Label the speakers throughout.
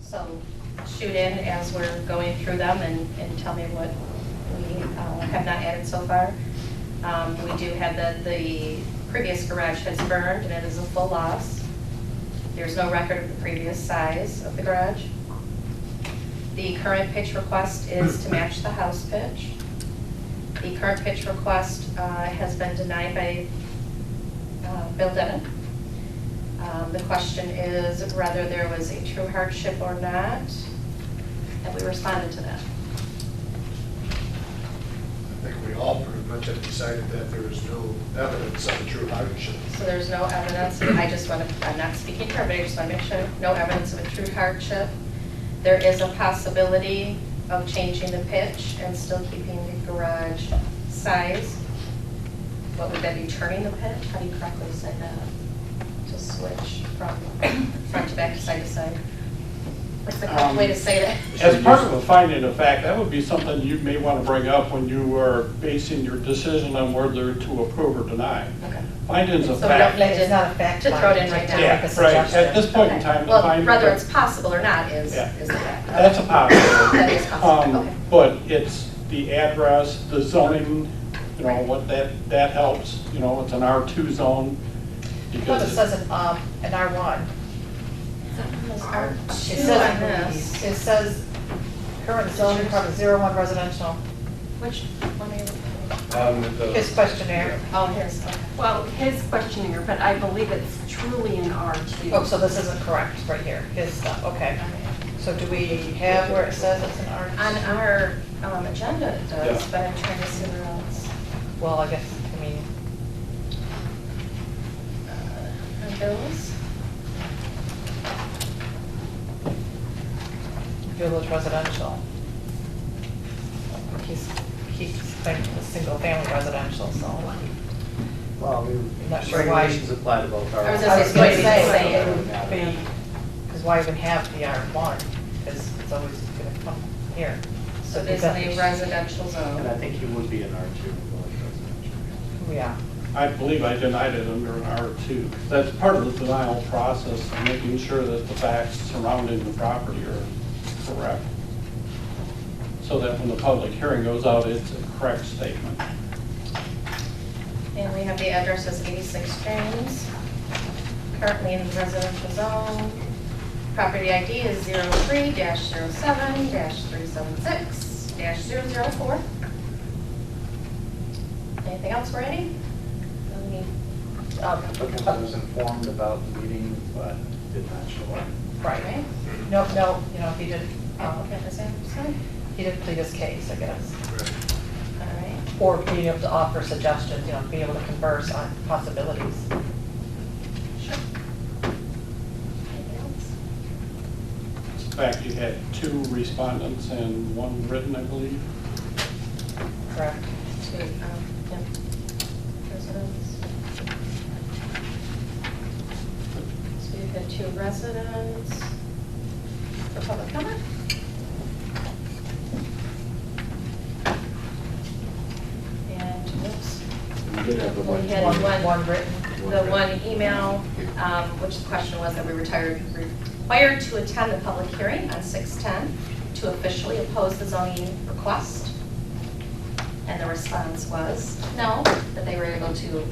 Speaker 1: So shoot in as we're going through them and, and tell me what we uh, have not added so far. Um, We do have the, the previous garage has burned and it is a full loss. There's no record of the previous size of the garage. The current pitch request is to match the house pitch. The current pitch request uh, has been denied by uh, Bill Devon. Um, The question is whether there was a true hardship or not, and we responded to that.
Speaker 2: I think we all pretty much have decided that there is no evidence of a true hardship.
Speaker 1: So there's no evidence, I just want to, I'm not speaking for everybody, I just want to make sure, no evidence of a true hardship. There is a possibility of changing the pitch and still keeping the garage size. What would that be, turning the pitch? How do you correctly say that? To switch from front to back to side to side? What's the correct way to say that?
Speaker 3: As part of a finding of fact, that would be something you may want to bring up when you are basing your decision on whether to approve or deny.
Speaker 1: Okay.
Speaker 3: Findings of
Speaker 1: So we don't
Speaker 3: fact.
Speaker 1: need
Speaker 4: It's not a fact
Speaker 1: to throw it in
Speaker 4: finding,
Speaker 1: right
Speaker 4: it's
Speaker 1: now.
Speaker 4: like
Speaker 3: Yeah,
Speaker 4: a
Speaker 3: right, at this
Speaker 4: suggestion.
Speaker 3: point in
Speaker 1: Okay.
Speaker 3: time, the
Speaker 1: Well,
Speaker 3: finding.
Speaker 1: whether it's possible or not is,
Speaker 3: Yeah.
Speaker 1: is the fact.
Speaker 3: That's a possibility.
Speaker 1: That is possible,
Speaker 3: Um,
Speaker 1: okay.
Speaker 3: But it's the address, the zoning, you know, what that, that helps, you know, it's an R2 zone.
Speaker 4: Well, it
Speaker 3: because
Speaker 4: says an, um, an R one.
Speaker 1: It
Speaker 4: It
Speaker 1: says on
Speaker 4: says,
Speaker 1: this.
Speaker 4: it says current zoning part zero one residential,
Speaker 1: Which one are you?
Speaker 2: Um,
Speaker 4: his questionnaire.
Speaker 1: Oh, here's, okay.
Speaker 5: Well, his questionnaire, but I believe it's truly an R2.
Speaker 4: Oh, so this isn't correct right here, his stuff, okay. So do we have where it says it's an R?
Speaker 1: On our um, agenda it does,
Speaker 3: Yeah.
Speaker 1: but I'm trying to see where else.
Speaker 4: Well, I guess, I mean,
Speaker 1: Uh, on Bills?
Speaker 4: village residential. He's, he's claiming the single family residential, so.
Speaker 6: Well, we-
Speaker 4: I'm not sure why-
Speaker 6: regulations apply to both
Speaker 1: I
Speaker 6: our.
Speaker 1: was gonna
Speaker 4: I was gonna say,
Speaker 6: it
Speaker 4: it would
Speaker 6: doesn't matter.
Speaker 4: be, because why even have the R1? Because it's always going to come here.
Speaker 1: So
Speaker 4: it
Speaker 1: basically
Speaker 4: doesn't-
Speaker 1: residential
Speaker 6: And I
Speaker 1: zone.
Speaker 6: think he would be an R two.
Speaker 4: Yeah,
Speaker 3: I believe I denied it under an R2. That's part of the denial process, making sure that the facts surrounding the property are correct. So that when the public hearing goes out, it's a correct statement.
Speaker 1: And we have the address as 86 James, currently in the residential zone. Property ID is 03-07-376-004. Anything else, Randy? No need.
Speaker 6: Because I was informed about the meeting, but did not show up.
Speaker 4: right.
Speaker 1: Right?
Speaker 4: No, no, you know, he didn't, um,
Speaker 1: Applicant is absent.
Speaker 4: he didn't plead his case, I guess.
Speaker 1: All right.
Speaker 4: Or being able to offer suggestions, you know, be able to converse on possibilities.
Speaker 1: Sure. Anything else?
Speaker 3: In fact, you had two respondents and one written, I believe.
Speaker 4: Correct.
Speaker 1: To, um, yeah. Residents. So you've got two residents for public comment? And, oops,
Speaker 7: We did have a
Speaker 1: we
Speaker 7: bunch.
Speaker 1: had one.
Speaker 4: One written.
Speaker 1: the one email, um, which the question was that we retired, required to attend the public hearing on 610 to officially oppose the zoning request. And the response was, no, that they were able to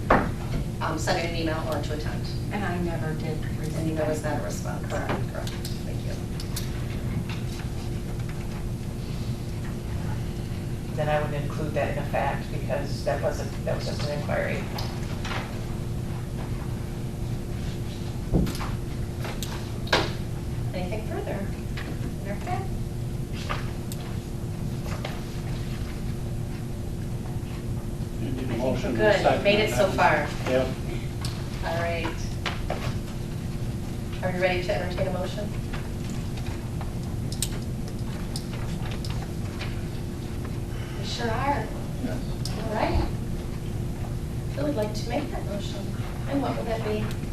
Speaker 1: um, send in an email or to attend.
Speaker 5: And I never did
Speaker 1: And
Speaker 5: receive
Speaker 1: that was
Speaker 5: that.
Speaker 1: not a response. Correct, correct. Thank you.
Speaker 4: Then I would include that in a fact because that wasn't, that was just an inquiry.
Speaker 1: Anything further? Okay.
Speaker 3: You need
Speaker 1: I
Speaker 3: a
Speaker 1: think
Speaker 3: motion
Speaker 1: we're
Speaker 3: and a
Speaker 1: good.
Speaker 3: second.
Speaker 1: Made it so far.
Speaker 3: Yep.
Speaker 1: All right. Are you ready to entertain a motion? We sure are. All right. Who would like to make that motion? And what would that be?